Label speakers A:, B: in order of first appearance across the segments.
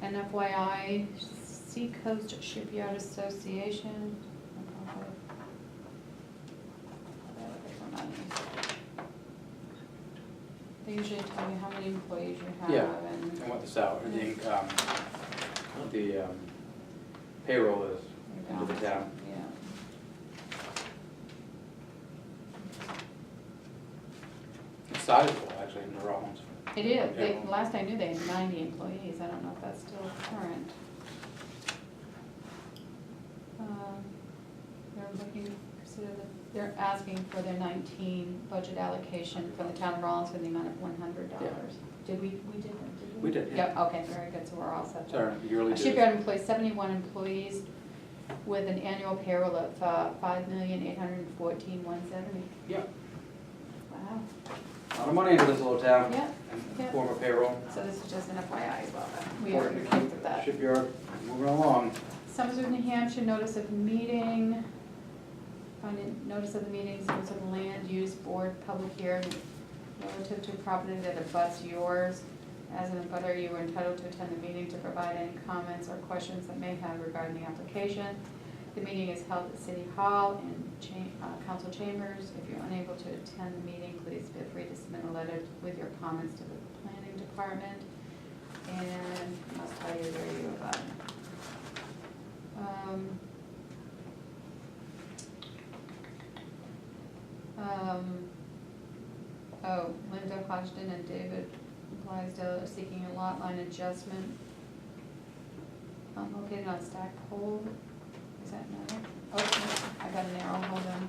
A: an FYI, Seacoast Shipyard Association. They usually tell you how many employees you
B: Yeah.
A: have and
B: and what the salary, the income, what um, the um, payroll is
A: your
B: into the
A: balance.
B: town.
A: Yeah.
B: It's sizable, actually, in the Rollins.
A: It is, they,
B: Yeah.
A: last I knew they had ninety employees, I don't know if that's still current. Um, They're looking, so the- they're asking for their nineteen budget allocation from the town of Rollins for the amount of one hundred dollars. Did we, we did that, did we?
B: We did, yeah.
A: Yep, okay, very good, so we're all set there.
B: Sorry, yearly
A: A
B: dues.
A: Shipyard employs seventy-one employees with an annual payroll of, uh, five million, eight hundred and fourteen, one seventy.
B: Yeah,
A: Wow,
B: a lot of money into this little town.
A: yeah,
B: In
A: yeah.
B: the form of payroll.
A: so this is just an FYI as well, but we already
B: Important
A: came
B: to
A: through
B: keep
A: that.
B: Shipyard moving along.
A: Somerset, New Hampshire, notice of meeting, finding, notice of the meeting, Somerset Land Use Board, public hearing relative to property that abuts yours. As an abutter, you are entitled to attend the meeting to provide any comments or questions that may have regarding the application. The meeting is held at City Hall and cha- uh, council chambers. If you're unable to attend the meeting, please feel free to submit a letter with your comments to the planning department. And I must tell you where you abut. Um, um, Oh, Linda Hodgson and David Blaisdell are seeking a lot line adjustment. um, Located on Stack Hole, is that another? Oh, no, I got an arrow, hold on.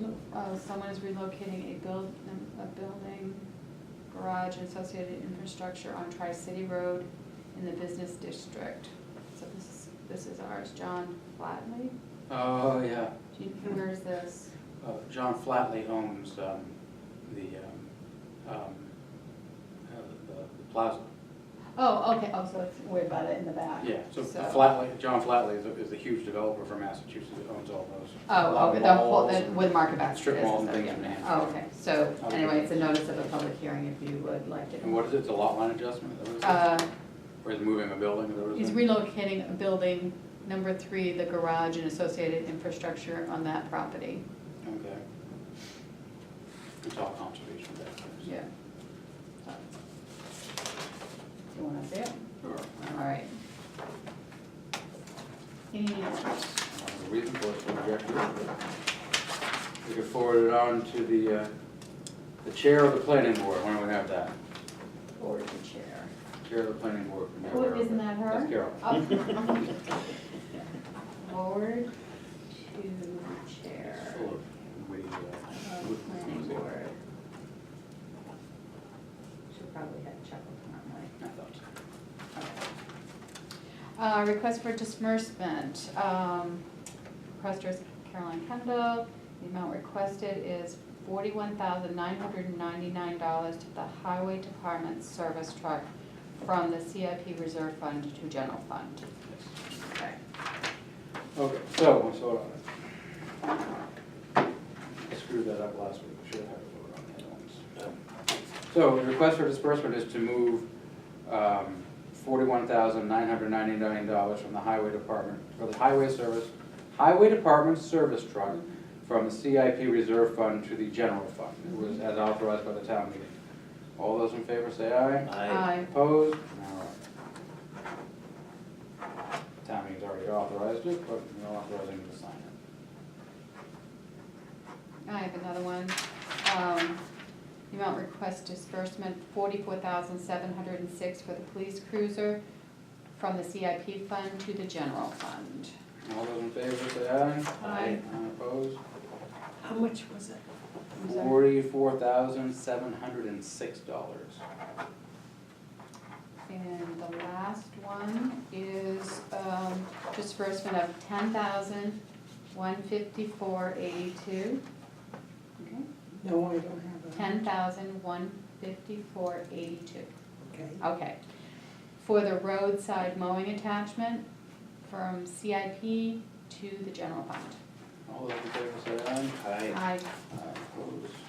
A: Look, uh, Someone is relocating a build, um, a building, garage and associated infrastructure on Tri-City Road in the business district. So this is, this is ours, John Flatley.
B: Oh, yeah.
A: Do you, where's this?
B: Uh, John Flatley owns um, the, um, um, uh, the the plaza.
A: Oh, okay, oh, so it's way about it in the back.
B: Yeah, so
A: So-
B: Flatley, John Flatley is a- is a huge developer from Massachusetts that owns all those. a lot
A: Oh,
B: of
A: okay, the whole,
B: malls
A: the,
B: and-
A: with market basket.
B: Strip malls and
A: business,
B: things
A: yeah.
B: in
A: Oh,
B: Manhattan.
A: okay, so anyway, it's a notice of a public hearing if you would like to.
B: And what is it, the lot line adjustment? Is that what it
A: Uh,
B: is? Or is it moving a building? Is that what it
A: He's
B: is?
A: relocating a building, number three, the garage and associated infrastructure on that property.
B: Okay. It's all conservation back there.
A: Yeah. You wanna see it?
B: Sure.
A: All right. And
B: The reason for it, so we got here, but we could forward it on to the, uh, the chair of the planning board, why don't we have that?
A: forward the chair.
B: Chair of the planning board. from
A: Oh,
B: Carol.
A: isn't that her? Oh,
B: That's Carol.
A: Forward to chair
B: Full of witty, uh,
A: of
B: wit-
A: planning
B: wit-
A: board. Should probably have chuckled on my.
B: I thought so.
A: Uh, request for disbursement, um, requester is Caroline Kendall. The amount requested is forty-one thousand nine hundred and ninety-nine dollars to the Highway Department service truck from the CIP Reserve Fund to General Fund. Okay.
B: Okay, so, what's vote on it? Screwed that up last week, we should have had a vote on the other ones. So, the request for disbursement is to move um, $41,999 from the highway department, for the highway service, highway department service truck from the CIP reserve fund to the general fund. It was as authorized by the town meeting. All those in favor say aye.
C: I
B: Opposed? All right. Town meeting's already authorized it, but we're authorizing you to sign
A: I
B: it.
A: have another one. Um, The amount request disbursement, forty-four thousand seven hundred and six for the police cruiser from the CIP fund to the general fund.
B: All those in favor say aye.
C: Aye.
B: Aye, Opposed?
C: How much was it?
A: I'm sorry.
B: Forty-four thousand, seven hundred and six dollars.
A: And the last one is um, disbursement of ten thousand one fifty-four eighty-two.
D: No, I don't have a.
A: Ten thousand one fifty-four eighty-two.
D: Okay,
A: Okay. For the roadside mowing attachment from CIP to the general fund.
B: All those in favor say aye.
C: I
A: I,
B: Aye, Opposed?